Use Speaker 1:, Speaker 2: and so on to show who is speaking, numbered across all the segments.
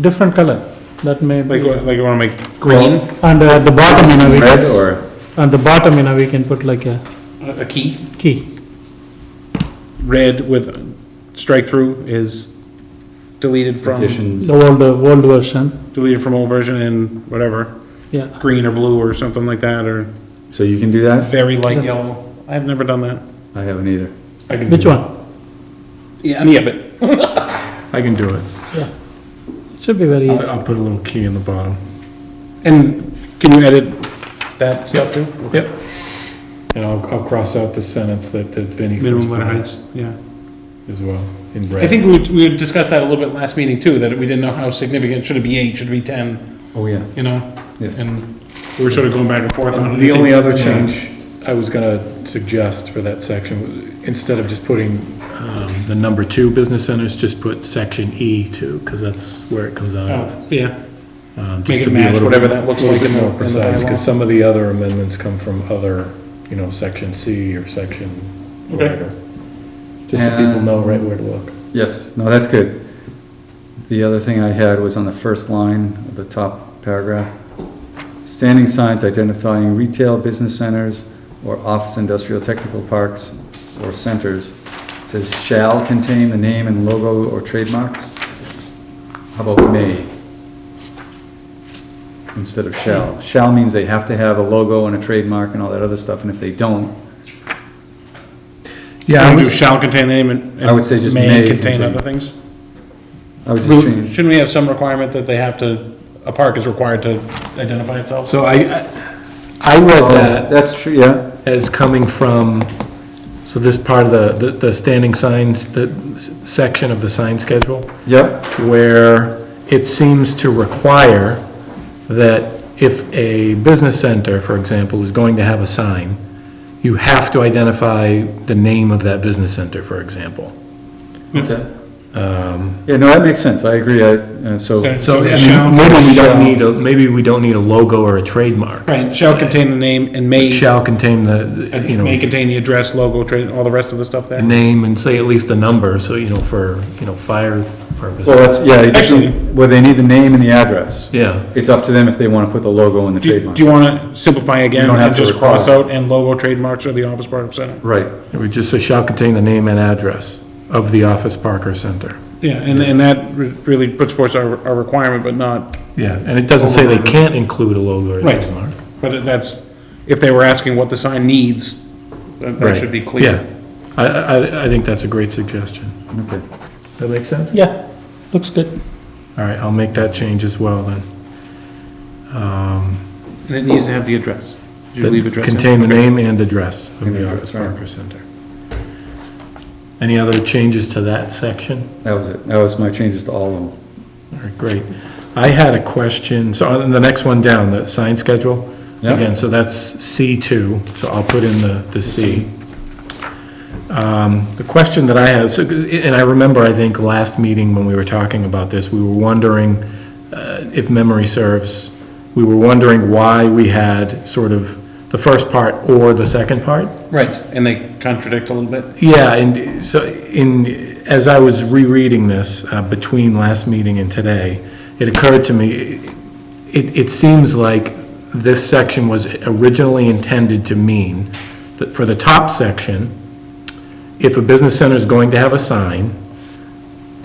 Speaker 1: different color, that may be.
Speaker 2: Like,
Speaker 1: a-
Speaker 2: like you wanna make green?
Speaker 1: And uh, at the bottom, you know, we
Speaker 2: Red
Speaker 1: can,
Speaker 2: or
Speaker 1: at the bottom, you know, we can put like a
Speaker 2: a key?
Speaker 1: key,
Speaker 2: Red with strike through is deleted from,
Speaker 1: the old, uh, old version,
Speaker 2: deleted from old version and whatever,
Speaker 1: yeah.
Speaker 2: green or blue or something like that, or
Speaker 3: So you can do that?
Speaker 2: very light yellow. I've never done that.
Speaker 3: I haven't either.
Speaker 4: I can
Speaker 1: Which
Speaker 4: do it.
Speaker 1: one?
Speaker 2: Yeah, any of it.
Speaker 4: I can do it.
Speaker 1: Should be
Speaker 2: Uh,
Speaker 1: very
Speaker 4: I-
Speaker 1: easy.
Speaker 4: I'll put a little key in the bottom.
Speaker 2: And can you edit that stuff too?
Speaker 4: Yep. And I'll, I'll cross out the sentence that, that Vinnie.
Speaker 2: Minimum letter heights, yeah.
Speaker 4: As well, in red.
Speaker 2: I think we, we had discussed that a little bit last meeting too, that we didn't know how significant, should it be eight, should it be ten,
Speaker 3: Oh, yeah,
Speaker 2: you know?
Speaker 3: yes.
Speaker 2: And we were sort of going back and forth on.
Speaker 4: The only other change I was gonna suggest for that section, instead of just putting, um, the number two business centers, just put section E two, cause that's where it comes out of.
Speaker 2: Oh, Yeah,
Speaker 4: Um, just
Speaker 2: make
Speaker 4: to
Speaker 2: it
Speaker 4: be a
Speaker 2: match
Speaker 4: little-
Speaker 2: whatever that looks
Speaker 4: little
Speaker 2: like
Speaker 4: bit
Speaker 2: in the-
Speaker 4: more
Speaker 2: in the
Speaker 4: precise,
Speaker 2: bylaw.
Speaker 4: cause some of the other amendments come from other, you know, section C or section
Speaker 2: Okay.
Speaker 4: whatever. Just so people know right where to look.
Speaker 3: Yes, no, that's good. The other thing I had was on the first line of the top paragraph. Standing signs identifying retail business centers or office industrial technical parks or centers. It Says shall contain the name and logo or trademarks. How about may? Instead of shall. Shall means they have to have a logo and a trademark and all that other stuff, and if they don't,
Speaker 2: Yeah. do shall contain the name and.
Speaker 3: I would say just may
Speaker 2: contain
Speaker 3: contain.
Speaker 2: other things.
Speaker 3: I would just change.
Speaker 2: Shouldn't we have some requirement that they have to, a park is required to identify itself?
Speaker 4: So I, I read
Speaker 3: Oh,
Speaker 4: that
Speaker 3: That's true, yeah.
Speaker 4: as coming from, so this part of the, the- the standing signs, the s- section of the sign schedule,
Speaker 3: Yep,
Speaker 4: where it seems to require that if a business center, for example, is going to have a sign, you have to identify the name of that business center, for example.
Speaker 3: okay. Yeah, no, that makes sense, I agree, I, uh, so,
Speaker 4: So, I
Speaker 2: shall-
Speaker 4: mean, maybe we
Speaker 2: shall-
Speaker 4: don't need, a maybe we don't need a logo or a trademark.
Speaker 2: Right, shall contain the name and may,
Speaker 4: It shall contain the, you know.
Speaker 2: may contain the address, logo, trade, all the rest of the stuff there?
Speaker 4: name and say at least the number, so, you know, for, you know, fire
Speaker 3: well,
Speaker 4: purposes.
Speaker 3: that's, yeah, it
Speaker 2: Actually-
Speaker 3: doesn't- well, they need the name and the address.
Speaker 4: Yeah,
Speaker 3: It's up to them if they wanna put the logo and the
Speaker 2: Do,
Speaker 3: trademark.
Speaker 2: do you wanna simplify again
Speaker 3: You don't have
Speaker 2: and
Speaker 3: to
Speaker 2: just cross
Speaker 3: require.
Speaker 2: out and logo trademarks or the office part of center?
Speaker 3: Right,
Speaker 4: it would just say shall contain the name and address of the office Parker center.
Speaker 2: Yeah, and, and that re- really puts forth our, our requirement, but not,
Speaker 4: Yeah, and it doesn't say they can't include a logo or
Speaker 2: Right.
Speaker 4: trademark.
Speaker 2: but that's, if they were asking what the sign needs, that, that
Speaker 4: Right.
Speaker 2: should be clear.
Speaker 4: Yeah, I, I, I think that's a great suggestion.
Speaker 3: okay.
Speaker 4: That makes sense?
Speaker 1: Yeah, looks good.
Speaker 4: All right, I'll make that change as well then. Um,
Speaker 2: And it needs to have the address. Did you
Speaker 4: that
Speaker 2: leave address? in?
Speaker 4: Contain the
Speaker 2: Okay.
Speaker 4: name and address of
Speaker 3: And
Speaker 4: the
Speaker 3: address,
Speaker 4: office
Speaker 3: right.
Speaker 4: Parker center. Any other changes to that section?
Speaker 3: That was it, that was my changes to all of them.
Speaker 4: All right, great. I had a question, so on the next one down, the sign schedule.
Speaker 3: Yeah.
Speaker 4: Again, so that's C2, so I'll put in the, the C. Um, The question that I have, so, and I remember, I think, last meeting when we were talking about this, we were wondering, uh, if memory serves, we were wondering why we had sort of the first part or the second part.
Speaker 2: Right, and they contradict a little bit.
Speaker 4: Yeah, and so in, as I was rereading this, uh, between last meeting and today, it occurred to me, it, it seems like this section was originally intended to mean that for the top section, if a business center is going to have a sign,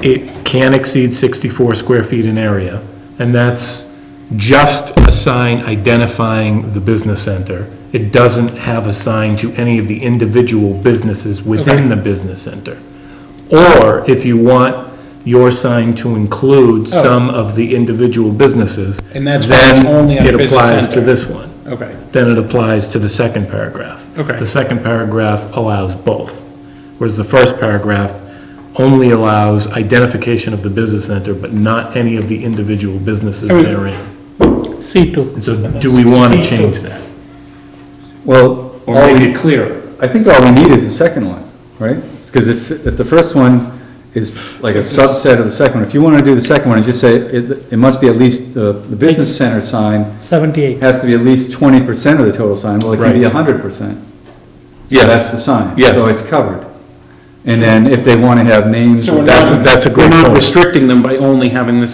Speaker 4: it can exceed sixty-four square feet in area, and that's just a sign identifying the business center. It doesn't have a sign to any of the individual businesses within the business center. Or if you want your sign to include some of the individual businesses.
Speaker 2: Oh. And that's why it's
Speaker 4: then
Speaker 2: only on
Speaker 4: it
Speaker 2: business
Speaker 4: applies
Speaker 2: center.
Speaker 4: to this one.
Speaker 2: Okay.
Speaker 4: Then it applies to the second paragraph.
Speaker 2: Okay.
Speaker 4: The second paragraph allows both, whereas the first paragraph only allows identification of the business center, but not any of the individual businesses
Speaker 2: I mean-
Speaker 4: therein.
Speaker 1: C two.
Speaker 4: And so do we want to change that?
Speaker 3: Well,
Speaker 4: Or
Speaker 3: all
Speaker 4: make
Speaker 3: we-
Speaker 4: it clearer?
Speaker 3: I think all we need is the second one, right? Because if, if the first one is like a subset of the second one, if you wanna do the second one and just say, it, it must be at least, the, the business center sign
Speaker 1: Seventy-eight.
Speaker 3: has to be at least twenty percent of the total sign, well, it can be
Speaker 4: Right.
Speaker 3: hundred percent.
Speaker 5: Yes.
Speaker 3: So that's the sign.
Speaker 5: Yes.
Speaker 3: So it's covered. And then if they want to have names.
Speaker 2: So we're
Speaker 3: that's-
Speaker 2: not-
Speaker 4: that's a great
Speaker 2: We're not
Speaker 4: point.
Speaker 2: restricting them by only having this